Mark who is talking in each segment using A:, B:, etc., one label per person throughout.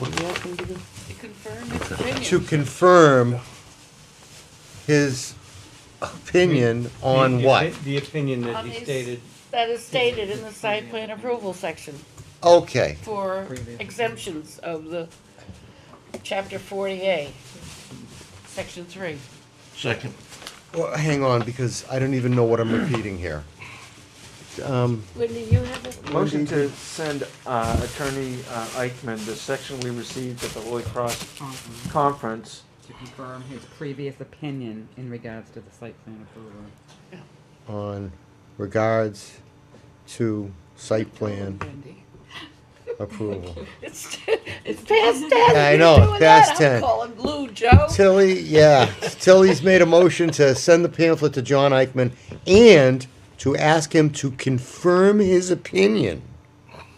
A: What do you want me to do?
B: To confirm his opinion.
A: To confirm his opinion on
C: The-
A: what?
C: The opinion that
B: On
C: he
B: his-
C: stated,
D: That is stated in the site plan approval section
A: Okay,
D: for exemptions of the chapter forty A, section three.
E: Second.
A: well, hang on, because I don't even know what I'm repeating here. Um,
D: Wendy, you have it?
F: Motion to send uh, Attorney uh, Eichmann the section we received at the Holy Cross
G: Conference
F: Mm-hmm. Conference.
G: to confirm his previous opinion in regards to the site plan approval.
A: on regards to site plan approval.
D: It's, it's past ten.
A: I
D: You're
A: know,
D: doing that.
A: past 10.
D: I'm calling blue, Joe.
A: Tilly, yeah, Tilly's made a motion to send the pamphlet to John Eichman and to ask him to confirm his opinion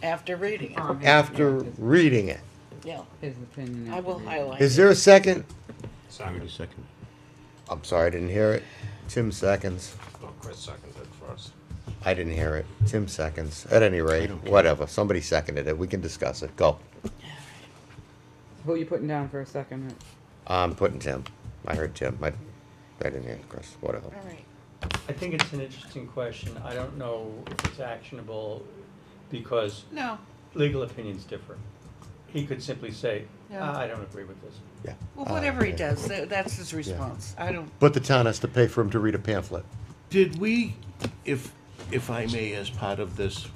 D: After reading it,
G: Confirm his-
A: after
G: yeah, his-
A: reading it.
D: yeah,
G: His opinion.
D: I
G: after
D: will
G: reading.
D: highlight.
A: Is there a second?
E: Already second.
A: I'm sorry, I didn't hear it. Tim seconds.
C: Oh, Chris seconded first.
A: I didn't hear it. Tim seconds. At any rate, whatever. Somebody seconded it. We can discuss it. Go.
G: Who you putting down for a second?
A: I'm putting Tim. I heard Tim. I, I didn't hear Chris. Whatever.
D: All right.
C: I think it's an interesting question. I don't know if it's actionable because
B: No,
C: legal opinions differ. He could simply say,
B: Yeah.
C: "Ah, I don't agree with this.
A: Yeah.
B: well,
A: Uh,
B: whatever he
A: yeah.
B: does, tha- that's his response. I don't,
A: But the town has to pay for him to read a pamphlet.
E: Did we, if, if I may, as part of this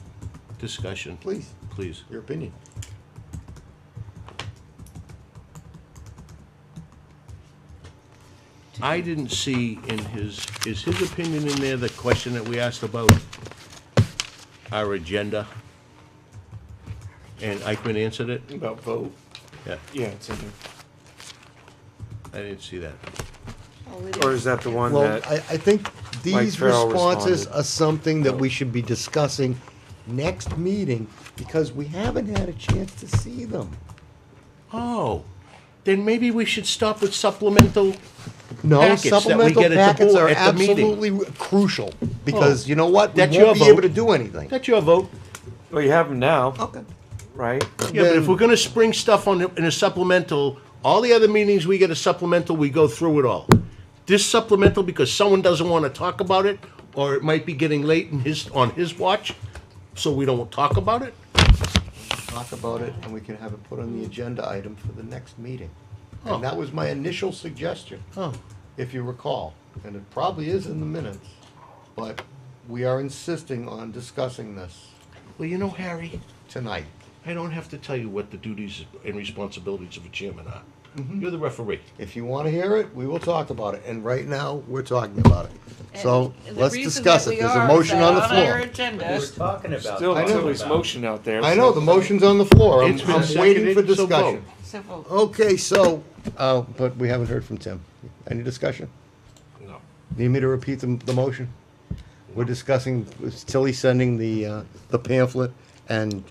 E: discussion?
A: Please.
E: Please.
A: Your opinion.
E: I didn't see in his, is his opinion in there the question that we asked about our agenda? And Eichmann answered it?
F: About vote?
E: Yeah,
F: Yeah, it's in
E: I didn't see that.
B: well, we
F: Or
B: didn't-
F: is that the one
A: Well, I,
F: that,
A: I think these
F: Farrell
A: responses
F: responded.
A: are something that we should be discussing next meeting because we haven't had a chance to see them.
E: Oh, then maybe we should stop with supplemental,
A: No,
E: Packets that we
A: supplemental
E: get at the
A: packets
E: board-
A: are
E: at the meeting. Oh.
A: absolutely crucial because you know what? We
E: That's your
A: won't be able
E: vote.
A: to do anything.
E: that's your vote.
F: well, you have them now,
A: Okay.
F: right?
E: Yeah, but if
A: Then-
E: we're gonna spring stuff on, the- in a supplemental, all the other meetings, we get a supplemental, we go through it all. This supplemental, because someone doesn't wanna talk about it, or it might be getting late in his, on his watch, so we don't talk about it?
A: talk about it and we can have it put on the agenda item for the next meeting.
E: Oh.
A: And that was my initial suggestion,
E: Oh,
A: if you recall, and it probably is in the minutes, but we are insisting on discussing this
E: well, you know, Harry,
A: tonight.
E: I don't have to tell you what the duties and responsibilities of a chairman are. You're the referee.
A: If you wanna hear it, we will talk about it, and right now, we're talking about it. So,
D: And the
A: let's
D: reason
A: discuss
D: that
A: it,
D: we
A: there's a
D: are
A: motion
D: is
A: on the
D: that our
A: floor.
C: We were
D: agenda,
C: talking about.
F: Still,
C: talking
F: Tilly's
C: about.
F: motion out there.
A: I know, the motion's on the floor, I'm,
E: It's been
A: I'm waiting for
E: seconded, so
A: discussion.
E: vote.
D: so we'll-
A: Okay, so, uh, but we haven't heard from Tim. Any discussion?
E: No.
A: Need me to repeat the, the motion? We're discussing, was Tilly sending the, uh, the pamphlet and,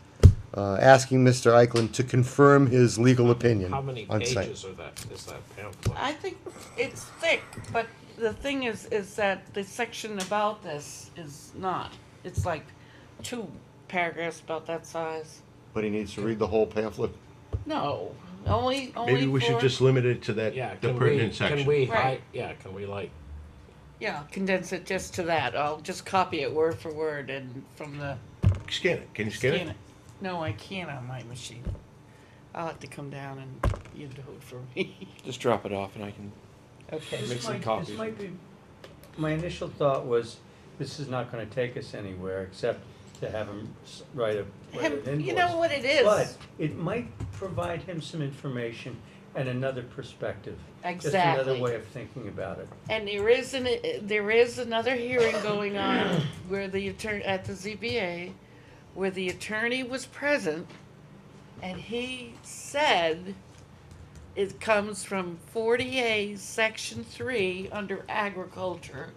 A: uh, asking Mr. Eichlin to confirm his legal opinion.
H: How many
A: on site.
H: pages are that, is that pamphlet?
D: I think it's thick, but the thing is, is that the section about this is not. It's like two paragraphs about that size.
A: But he needs to read the whole pamphlet?
D: No, only, only
E: Maybe we should
D: for-
E: just limit it to that,
H: Yeah,
E: the
H: can we,
E: pertinent
H: can
E: section.
H: we,
D: Right.
H: hi- yeah, can we like,
D: Yeah, condense it just to that. I'll just copy it word for word and from the.
E: Scan it, can you scan it?
D: No, I can't on my machine. I'll have to come down and you do it for me.
F: Just drop it off and I can,
D: Okay.
C: This
F: Make some
C: might-
F: copies.
C: This might be, my initial thought was, this is not gonna take us anywhere, except to have him s- write a, write an
D: Him-
C: invoice.
D: you know what it is.
C: But it might provide him some information and another perspective. Just
D: Exactly.
C: another way of thinking about it.
D: And there is an, there is another hearing going on where the attorney, at the ZBA, where the attorney was present, and he said it comes from forty A, section three, under agriculture.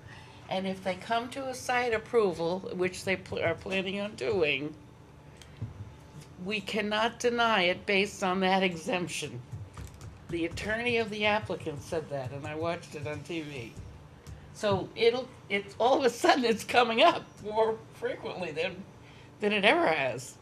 D: And if they come to a site approval, which they pl- are planning on doing, we cannot deny it based on that exemption. The attorney of the applicant said that, and I watched it on TV. So it'll, it's, all of a sudden, it's coming up more frequently than, than it ever has.